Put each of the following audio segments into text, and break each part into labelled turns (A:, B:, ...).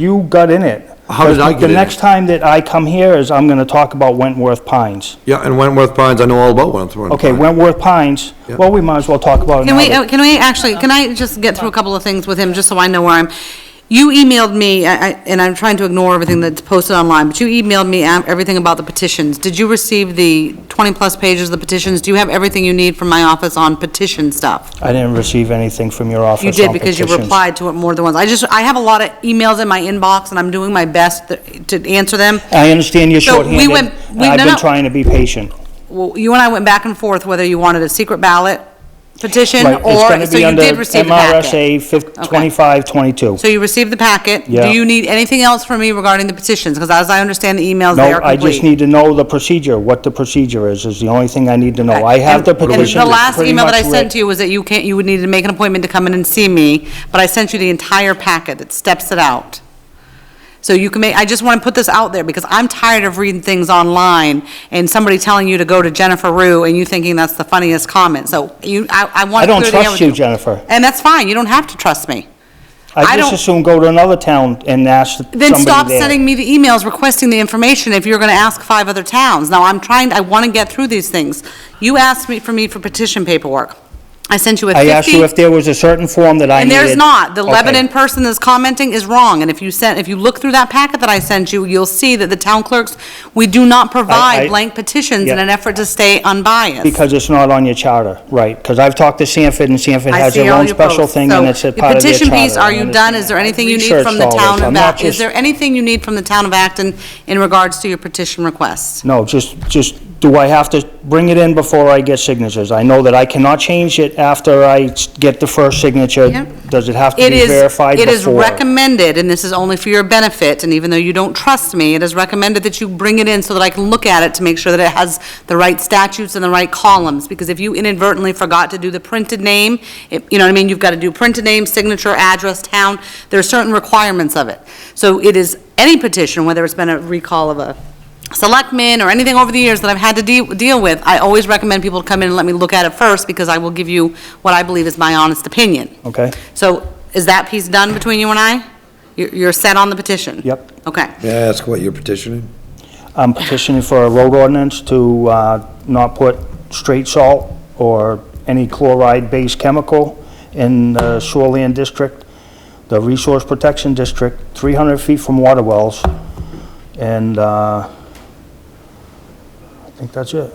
A: You got in it.
B: How did I get in
A: The
B: it?
A: next time that I come here is I'm gonna talk about Wentworth Pines.
B: Yeah, and Wentworth Pines, I know all about Wentworth Pines.
A: Okay, Wentworth Pines,
B: Yeah.
A: well, we might as well talk about it now.
C: Can we,
A: that-
C: oh, can we actually, can I just get through a couple of things with him, just so I know where I'm? You emailed me, I- I- and I'm trying to ignore everything that's posted online, but you emailed me am- everything about the petitions. Did you receive the 20-plus pages of the petitions? Do you have everything you need from my office on petition stuff?
A: I didn't receive anything from your office
C: uh, You did,
A: on
C: because you
A: petitions.
C: replied to it more than once. I just, I have a lot of emails in my inbox, and I'm doing my best th- to answer them.
A: I understand you're
C: So we
A: shorthanded,
C: went-
A: and
C: we-
A: I've
C: no,
A: been
C: no.
A: trying to be patient.
C: Well, You and I went back and forth whether you wanted a secret ballot petition,
A: Right, it's
C: or,
A: gonna
C: so
A: be
C: you
A: under
C: did receive the packet.
A: MRSA fif-
C: Okay.
A: 2522.
C: So you received the packet.
A: Yeah.
C: Do you need anything else from me regarding the petitions? Because as I understand the emails, they
A: No,
C: are
A: I just
C: complete.
A: need to know the procedure, what the procedure is, is the only thing I need to know. I have the
C: And-
A: petition
C: And the last
A: pretty
C: email that I
A: much writ-
C: sent to you was that you can't, you would need to make an appointment to come in and see me, but I sent you the entire packet that steps it out. So you can make, I just want to put this out there because I'm tired of reading things online and somebody telling you to go to Jennifer Rue and you thinking that's the funniest comment. So you, I, I
A: I
C: want to
A: don't
C: clear the air
A: trust
C: with
A: you, Jennifer.
C: And that's fine. You don't have to trust me.
A: I
C: I
A: just
C: don't-
A: assume go to another town and ask somebody there.
C: Then stop sending me the emails requesting the information if you're going to ask five other towns. Now, I'm trying, I want to get through these things. You asked me, for me for petition paperwork. I sent you a 50.
A: I asked you if there was a certain form that I
C: And
A: needed.
C: there's not. The
A: Okay.
C: Lebanon person that's commenting is wrong. And if you sent, if you look through that packet that I sent you, you'll see that the town clerks, we do not
A: I-
C: provide blank petitions in
A: Yeah.
C: an effort to stay unbiased.
A: Because it's not on your charter, right? Because I've talked to Sanford, and Sanford
C: I
A: has
C: see
A: their
C: all
A: own
C: your
A: special
C: posts.
A: thing,
C: So
A: and it's a part of their
C: Your petition piece,
A: charter. I
C: are you done?
A: understand
C: Is there anything you need
A: Researched
C: from the
A: all this.
C: town
A: I'm
C: of
A: not
C: Acton? Is
A: just-
C: there anything you need from the town of Acton in regards to your petition request?
A: No, just, just, do I have to bring it in before I get signatures? I know that I cannot change it after I s- get the first signature.
C: Yep.
A: Does it have to
C: It
A: be
C: is,
A: verified
C: it
A: before?
C: is recommended, and this is only for your benefit, and even though you don't trust me, it is recommended that you bring it in so that I can look at it to make sure that it has the right statutes and the right columns, because if you inadvertently forgot to do the printed name, it- you know what I mean, you've got to do printed name, signature, address, town, there are certain requirements of it. So it is any petition, whether it's been a recall of a selectman or anything over the years that I've had to de- deal with, I always recommend people to come in and let me look at it first, because I will give you what I believe is my honest opinion.
A: Okay,
C: So is that piece done between you and I? You're you're set on the petition?
A: Yep.
C: Okay.
B: May I ask what you're petitioning?
A: I'm petitioning for a road ordinance to, uh, not put straight salt or any chloride-based chemical in the shoreland district, the resource protection district, three hundred feet from water wells, and, uh, I think that's it.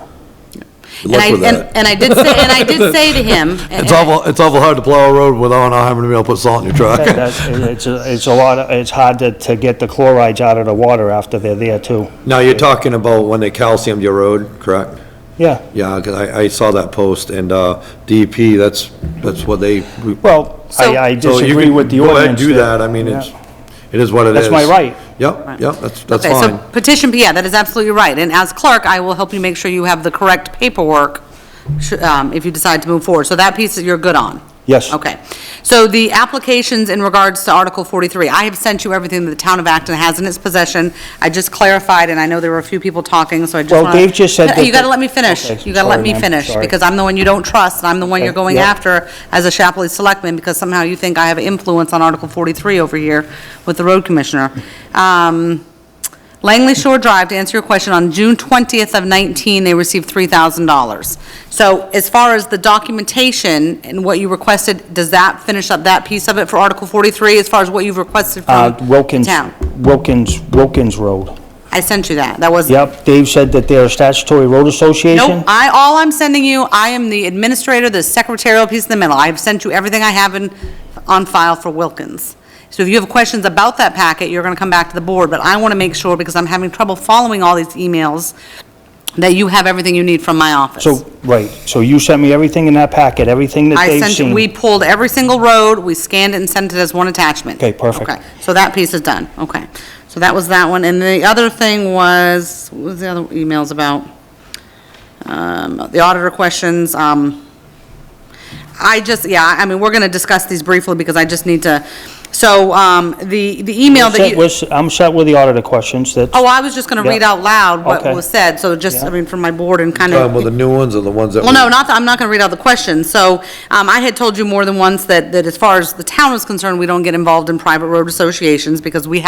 B: Good
C: And I-
B: luck with
C: and-
B: that.
C: And I did say, and I did say to him,
B: It's awful, it's awful hard to plow a road without not having to be able to put salt in your truck.
A: That- that's- It's, a- it's a lot, of- it's hard to, to get the chlorides out of the water after they're there too.
B: Now, you're talking about when they calciumed your road, correct?
A: Yeah,
B: Yeah, because I, I saw that post, and, uh, DEP, that's, that's what they.
A: well, I,
C: So-
A: I
B: So you
A: disagree
B: can
A: with the
B: Go ahead
A: ordinance.
B: and do that, I mean, it's, it is what it is.
A: That's my right.
B: Yep, yep, that's, that's
C: okay, so
B: fine.
C: petition, yeah, that is absolutely right. And as clerk, I will help you make sure you have the correct paperwork sh- um, if you decide to move forward. So that piece that you're good on?
A: Yes.
C: Okay. So the applications in regards to Article 43, I have sent you everything that the town of Acton has in its possession. I just clarified, and I know there were a few people talking, so I just
A: Well,
C: want
A: Dave just said that
C: You got to
A: the-
C: let me finish.
A: Okay,
C: You got to let
A: sorry,
C: me
A: ma'am,
C: finish,
A: sorry.
C: because I'm the one you don't trust, and I'm the one you're
A: Okay,
C: going
A: yeah.
C: after as a Chapley Selectman, because somehow you think I have influence on Article 43 over here with the road commissioner. Um, Langley Shore Drive, to answer your question, on June 20th of 19, they received $3,000. So as far as the documentation and what you requested, does that finish up that piece of it for Article 43, as far as what you've requested
A: Uh,
C: from
A: Wilkins,
C: town?
A: Wilkins, Wilkins Road.
C: I sent you that. That was
A: Yep, Dave said that they're a statutory road association.
C: Nope, I, all I'm sending you, I am the administrator, the secretarial piece in the middle. I've sent you everything I have in, on file for Wilkins. So if you have questions about that packet, you're gonna come back to the board, but I wanna make sure, because I'm having trouble following all these emails, that you have everything you need from my office.
A: So, right, so you sent me everything in that packet, everything that
C: I
A: they've
C: sent, you-
A: seen.
C: we pulled every single road, we scanned it and sent it as one attachment.
A: Okay, perfect.
C: Okay, so that piece is done, okay. So that was that one, and the other thing was, what was the other emails about? Um, the auditor questions, um, I just, yeah, I mean, we're gonna discuss these briefly because I just need to, so, um, the, the email that
A: Set
C: you,
A: with- I'm set with the auditor questions, that,
C: oh, I was just gonna read
A: Yeah.
C: out loud what
A: Okay.
C: was said, so just, I
A: Yeah.
C: mean, from my board and kind of.
B: Um, well, the new ones are the ones that.
C: Well, no,
B: we-
C: not, the- I'm not going to read out the question. So um, I had told you more than once that, that as far as the town is concerned, we don't get involved in private road associations because we have